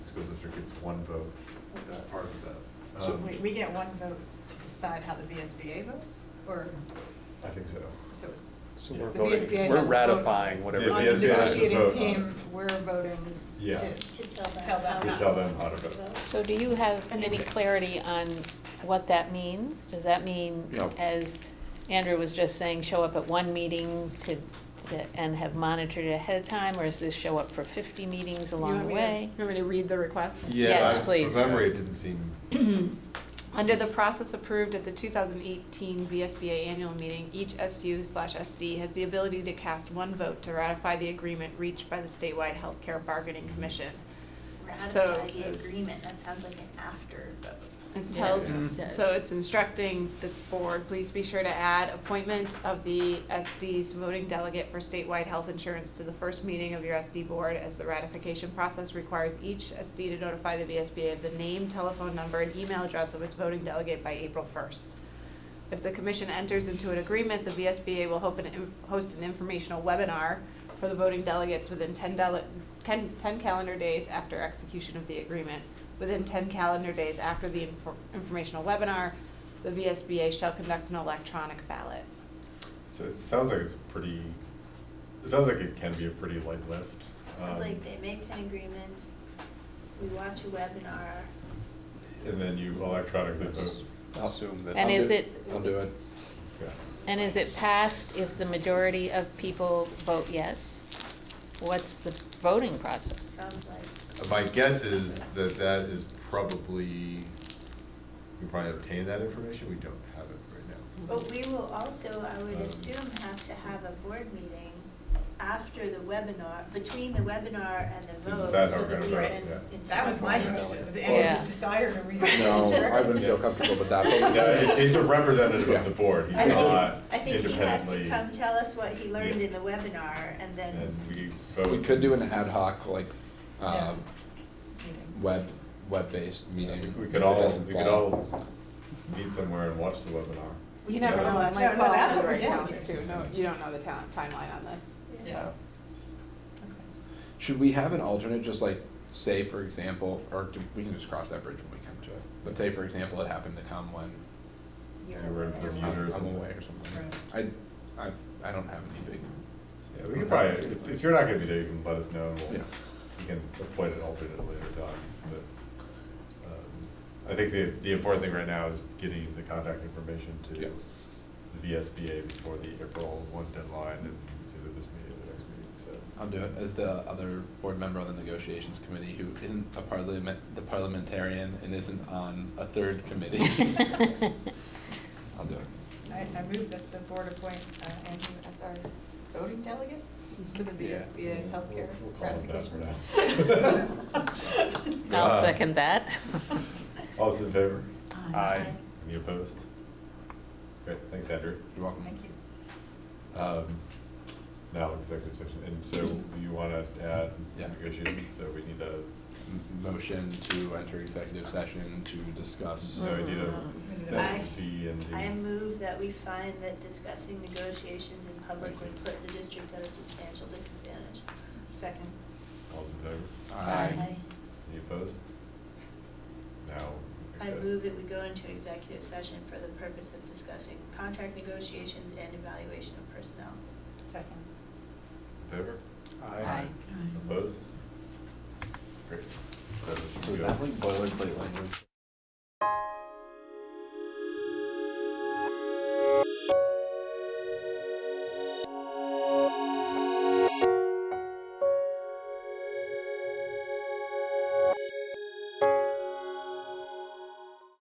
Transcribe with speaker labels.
Speaker 1: school district gets one vote, that part of that.
Speaker 2: So-
Speaker 1: Um,
Speaker 3: We, we get one vote to decide how the VSBA votes, or,
Speaker 1: I think so.
Speaker 3: so it's,
Speaker 2: So
Speaker 1: Yeah.
Speaker 2: we're
Speaker 3: the
Speaker 2: voting,
Speaker 3: VSBA
Speaker 2: we're
Speaker 3: has the vote.
Speaker 2: ratifying whatever.
Speaker 1: Yeah,
Speaker 3: On
Speaker 2: it
Speaker 3: the
Speaker 2: is.
Speaker 1: VSBA has the
Speaker 3: negotiating
Speaker 1: vote on it.
Speaker 3: team, we're voting
Speaker 1: Yeah.
Speaker 3: to.
Speaker 4: To tell them.
Speaker 3: Tell them
Speaker 4: how
Speaker 3: To
Speaker 1: tell them how to vote.
Speaker 5: So do you have
Speaker 3: And
Speaker 5: any
Speaker 3: if it-
Speaker 5: clarity on what that means? Does that mean,
Speaker 2: No.
Speaker 5: as Andrew was just saying, show up at one meeting to, to- and have monitored it ahead of time? Or is this show up for 50 meetings
Speaker 6: You
Speaker 5: along
Speaker 6: want
Speaker 5: the
Speaker 6: me to-
Speaker 5: way?
Speaker 6: You want me to read the request?
Speaker 1: Yeah,
Speaker 5: Yes,
Speaker 1: I-
Speaker 5: please.
Speaker 1: From memory, it didn't seem,
Speaker 6: Under the process approved at the 2018 VSBA annual meeting, each SU slash SD has the ability to cast one vote to ratify the agreement reached by the statewide healthcare bargaining commission. So
Speaker 4: Ratify the
Speaker 6: it's-
Speaker 4: agreement, that sounds like an after vote.
Speaker 6: It
Speaker 5: Yeah,
Speaker 6: tells,
Speaker 2: it
Speaker 5: says.
Speaker 6: so it's instructing this board, please be sure to add appointment of the SD's voting delegate for statewide health insurance to the first meeting of your SD board, as the ratification process requires each SD to notify the VSBA of the name, telephone number, and email address of its voting delegate by April first. If the commission enters into an agreement, the VSBA will hope an- host an informational webinar for the voting delegates within 10 dele- 10 10 calendar days after execution of the agreement. Within ten calendar days after the infor- informational webinar, the VSBA shall conduct an electronic ballot.
Speaker 1: so it sounds like it's pretty, it sounds like it can be a pretty light lift.
Speaker 4: Sounds
Speaker 1: um,
Speaker 4: like they make an agreement, we watch a webinar,
Speaker 1: And then you electronically vote.
Speaker 2: Assume that.
Speaker 5: And
Speaker 2: I'll
Speaker 5: is
Speaker 2: do-
Speaker 5: it-
Speaker 2: I'll do it.
Speaker 1: Yeah.
Speaker 5: And is it passed if the majority of people vote yes? What's the voting process?
Speaker 4: sounds like.
Speaker 1: My guess is that that is probably, we probably obtain that information, we don't have it right now.
Speaker 4: But we will also, I would
Speaker 1: Um,
Speaker 4: assume, have to have a board meeting after the webinar, between the webinar and the
Speaker 1: To
Speaker 4: vote.
Speaker 1: decide how
Speaker 4: so
Speaker 1: we're
Speaker 4: that
Speaker 1: gonna
Speaker 4: we
Speaker 1: vote,
Speaker 4: can-
Speaker 1: yeah.
Speaker 4: it's-
Speaker 3: that was my
Speaker 1: Yeah.
Speaker 3: question, was
Speaker 5: Yeah.
Speaker 3: Andrew's decider to read the
Speaker 2: No,
Speaker 3: district?
Speaker 2: I wouldn't feel comfortable with that, but
Speaker 1: Yeah, it- he's a representative of the board, he's
Speaker 4: I think,
Speaker 1: not
Speaker 4: I think he has to
Speaker 1: independently-
Speaker 4: come tell us what he learned
Speaker 1: Yeah.
Speaker 4: in the webinar and
Speaker 1: And
Speaker 4: then,
Speaker 1: we vote.
Speaker 2: We could do an ad hoc, like, um,
Speaker 3: Meeting.
Speaker 2: web, web-based
Speaker 1: Yeah,
Speaker 2: meeting.
Speaker 1: we- We
Speaker 2: if
Speaker 1: could
Speaker 2: it
Speaker 1: all,
Speaker 2: doesn't
Speaker 1: we could
Speaker 2: fall.
Speaker 1: all meet somewhere and watch the webinar.
Speaker 6: You never
Speaker 1: Yeah.
Speaker 6: know, it
Speaker 3: No,
Speaker 6: might
Speaker 3: no,
Speaker 6: fall
Speaker 3: that's
Speaker 6: into the
Speaker 3: what
Speaker 6: right
Speaker 3: we're doing.
Speaker 6: calendar too, no, you don't know the town, timeline on this,
Speaker 3: Yeah.
Speaker 6: so.
Speaker 2: Should we have an alternate, just like, say, for example, or do- we can just cross that bridge when we come to it, but say, for example, it happened to come when
Speaker 4: you're.
Speaker 1: You were in
Speaker 4: aware.
Speaker 1: Bermuda or
Speaker 2: I'm I'm
Speaker 1: something.
Speaker 2: away or something. I, I, I don't have any big,
Speaker 1: Yeah, we could probably, if- if you're not gonna be there, you can let us know, and we'll,
Speaker 2: Yeah.
Speaker 1: you can appoint an alternate at a later time, but, um, I think the, the important thing right now is getting the contact information to
Speaker 2: Yeah.
Speaker 1: the VSBA before the April one deadline, and it's either this meeting or the next meeting, so.
Speaker 2: I'll do it as the other board member on the negotiations committee who isn't a parliament, the parliamentarian and isn't on a third committee. I'll do it.
Speaker 3: I, I move that the board appoint uh, Andrew as our voting delegate to the
Speaker 2: Yeah.
Speaker 3: VSBA healthcare
Speaker 1: We'll call it that for
Speaker 3: ratification.
Speaker 1: now.
Speaker 5: I'll
Speaker 1: Uh,
Speaker 5: second that.
Speaker 1: All those in favor?
Speaker 2: Aye.
Speaker 1: Any opposed? Great, thanks, Andrew.
Speaker 2: You're welcome.
Speaker 3: Thank you.
Speaker 1: Um, Now, executive session, and so you want us to add
Speaker 2: Yeah.
Speaker 1: negotiations, so we need a,
Speaker 2: M- Motion to enter executive session to
Speaker 5: Mm.
Speaker 2: discuss.
Speaker 1: so we need a, that
Speaker 4: I-
Speaker 1: would be in the.
Speaker 4: I move that we find that discussing negotiations in public would put the district at a substantial disadvantage.
Speaker 3: Second.
Speaker 1: All's in favor?
Speaker 2: Aye.
Speaker 1: Any opposed? Now. we
Speaker 4: I
Speaker 1: got-
Speaker 4: move that we go into executive session for the purpose of discussing contract negotiations and evaluation of personnel.
Speaker 3: Second.
Speaker 1: In Favor?
Speaker 2: Aye.
Speaker 1: Opposed? Great. So
Speaker 2: So
Speaker 1: we
Speaker 2: is
Speaker 1: go-
Speaker 2: that like boilerplate language?